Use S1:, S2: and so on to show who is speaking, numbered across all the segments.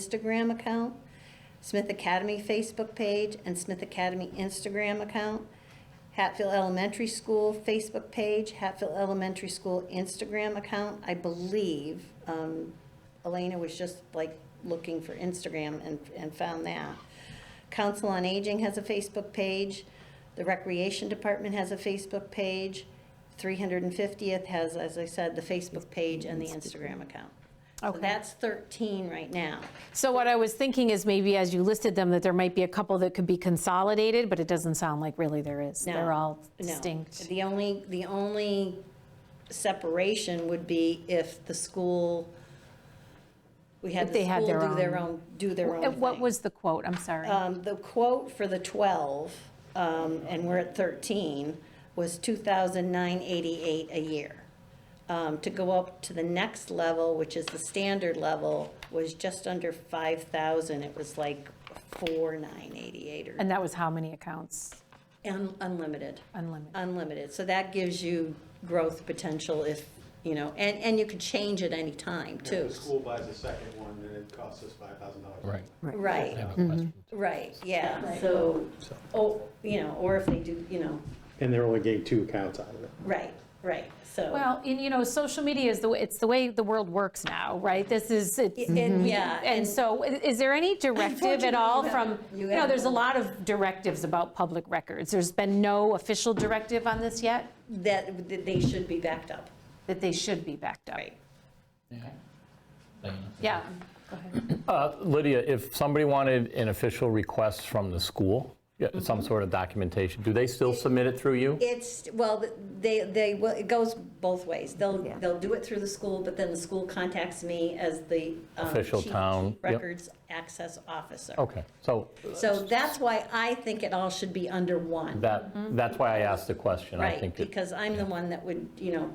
S1: Instagram account, Smith Academy Facebook page, and Smith Academy Instagram account, Hatfield Elementary School Facebook page, Hatfield Elementary School Instagram account. I believe um, Elena was just like looking for Instagram and, and found that. Council on Aging has a Facebook page. The Recreation Department has a Facebook page. 350th has, as I said, the Facebook page and the Instagram account. So
S2: Okay.
S1: that's 13 right now.
S2: So what I was thinking is maybe as you listed them, that there might be a couple that could be consolidated, but it doesn't sound like really there is.
S1: No,
S2: They're all
S1: No.
S2: distinct.
S1: The only, the only separation would be if the school, we had
S2: If
S1: the
S2: they had
S1: school
S2: their
S1: do their
S2: own.
S1: own, do their own
S2: And What
S1: thing.
S2: was the quote? I'm sorry.
S1: Um, The quote for the 12, um, and we're at 13, was 2,988 a year. Um, To go up to the next level, which is the standard level, was just under 5,000. It was like 4,988 or
S2: And that was how many accounts?
S1: un- unlimited,
S2: Unlimited.
S1: unlimited. So that gives you growth potential if, you know, and, and you could change at any time,
S3: If
S1: too.
S3: the school buys a second one, then it costs us five thousand dollars.
S4: Right.
S1: Right, right, yeah. So, oh, you know, or if they do, you know,
S3: And they're only getting two accounts out of it.
S1: Right, right, so.
S2: Well, and you know, social media is the, way it's the way the world works now, right? This is, it's
S1: And, yeah,
S2: And so, i- is there any directive at all from,
S1: Unfortunately,
S2: you
S1: you
S2: know,
S1: have-
S2: there's a lot of directives about public records. There's been no official directive on this yet,
S1: that, that they should be backed up.
S2: that they should be backed up. Yeah, go ahead.
S4: Lydia, if somebody wanted an official request from the school, yeah, some sort of documentation, do they still submit it through you?
S1: It's, well, they, they, will- it goes both ways. They'll, they'll do it through the school, but then the school contacts me as the. um,
S4: Official
S1: chief-
S4: town,
S1: chief
S4: yep. Oh.
S1: Records Access Officer.
S4: Okay, so
S1: So that's why I think it all should be under one.
S4: that, that's why I asked the question. I
S1: Right,
S4: think it-
S1: because I'm the one that would, you know,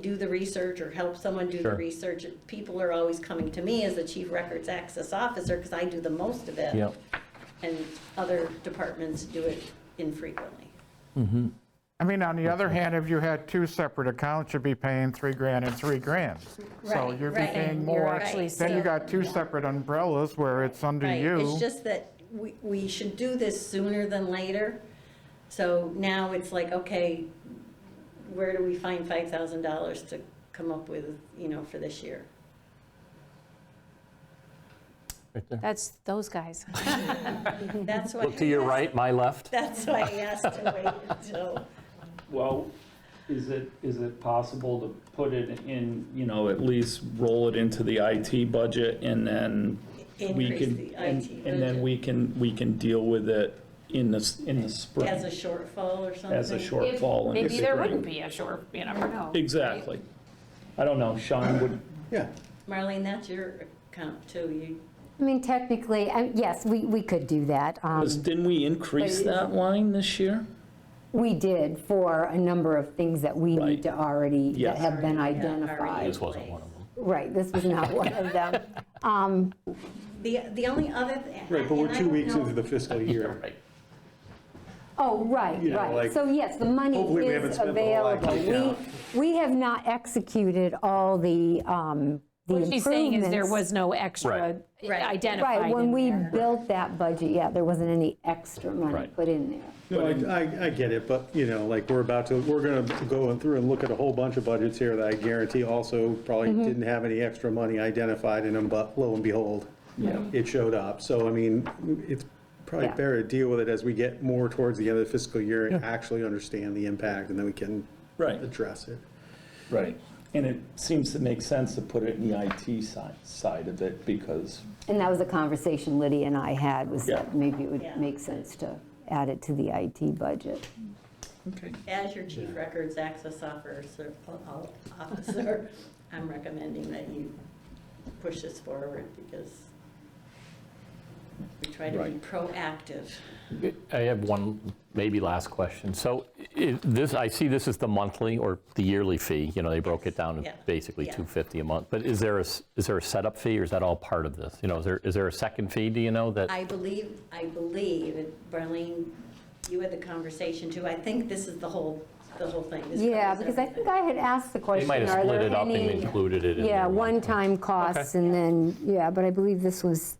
S1: do the research or help someone do the
S4: Sure.
S1: research. People are always coming to me as the chief records access officer because I do the most of it.
S4: Yep.
S1: And other departments do it infrequently.
S5: I mean, on the other hand, if you had two separate accounts, you'd be paying three grand and three grand. So
S1: Right,
S5: you'd be
S1: right.
S5: paying
S1: You're
S5: more.
S1: actually
S5: Then
S1: still-
S5: you got two separate umbrellas where it's under
S1: Right, It's
S5: you.
S1: just that we, we should do this sooner than later. So now it's like, okay, where do we find five thousand dollars to come up with, you know, for this year?
S4: right there.
S2: that's those guys.
S1: That's why.
S4: Look to your right, my left.
S1: That's why I asked to wait until.
S6: Well, is it, is it possible to put it in, you know, at least roll it into the IT budget and then we
S1: Increase
S6: can,
S1: the
S6: and
S1: IT
S6: and
S1: budget.
S6: then we can, we can deal with it in the, s- in the spring
S1: As a shortfall or something?
S6: as a shortfall. in the
S2: Maybe there
S6: spring.
S2: wouldn't be a short, you never know.
S6: Exactly. I don't know, Sean would,
S3: Yeah.
S1: Marlene, that's your account too. You,
S7: I mean, technically, I- yes, we, we could do that. Um,
S6: was- didn't we increase that line this year?
S7: We did for a number of things that we need
S6: Right.
S7: to already, that
S6: Yes.
S7: have been
S1: yeah, already in
S7: identified.
S4: This wasn't one
S1: place.
S4: of them.
S7: Right, this was not one of them. Um,
S1: The, the only other. th-
S3: Right, but we're
S1: and I
S3: two
S1: don't
S3: weeks
S1: know-
S3: into the fiscal year.
S4: Right.
S7: Oh, right,
S3: You know,
S7: right.
S3: like-
S7: So yes, the money
S3: Hopefully we haven't
S7: is
S3: spent the whole
S7: available.
S3: IT
S7: We, we have not executed all the, um, the
S2: What she's saying is there
S7: improvements.
S2: was no extra
S4: Right.
S1: Right.
S2: identified
S7: Right, when
S2: in
S7: we
S2: there.
S7: built that budget, yeah, there wasn't any extra money
S4: Right.
S7: put in there.
S3: No, I, I- I get it, but, you know, like, we're about to, we're gonna go in through and look at a whole bunch of budgets here that I guarantee also probably didn't have any extra money identified in them, but lo and behold, it showed up. So, I mean, it's probably
S7: Yeah.
S3: better to deal with it as we get more towards the end of the fiscal year and actually understand the impact, and then we can
S6: Right.
S3: address it.
S6: Right. And it seems to make sense to put it in the IT side, side of it because
S7: And that was a conversation Lydia and I had, was
S6: Yeah.
S7: that maybe it
S1: Yeah.
S7: would make sense to add it to the IT budget.
S1: As your chief records access officer, officer, I'm recommending that you push this forward because we try to be
S6: Right.
S1: proactive.
S4: I have one, maybe last question. So i- this, I see this is the monthly or the yearly fee, you know, they broke it down to
S1: Yeah.
S4: basically
S1: Yeah.
S4: 250 a month. But is there a, s- is there a setup fee or is that all part of this? You know, is there, is there a second fee, do you know, that?
S1: I believe, I believe, and Marlene, you had the conversation too, I think this is the whole the whole thing. This
S7: Yeah,
S1: covers
S7: because I
S1: everything.
S7: think I had asked the
S4: They
S7: question,
S4: might have
S7: are
S4: split
S7: there
S4: it up and
S7: any,
S4: included it in
S7: yeah,
S4: their one-
S7: one-time costs and then, yeah, but I believe this was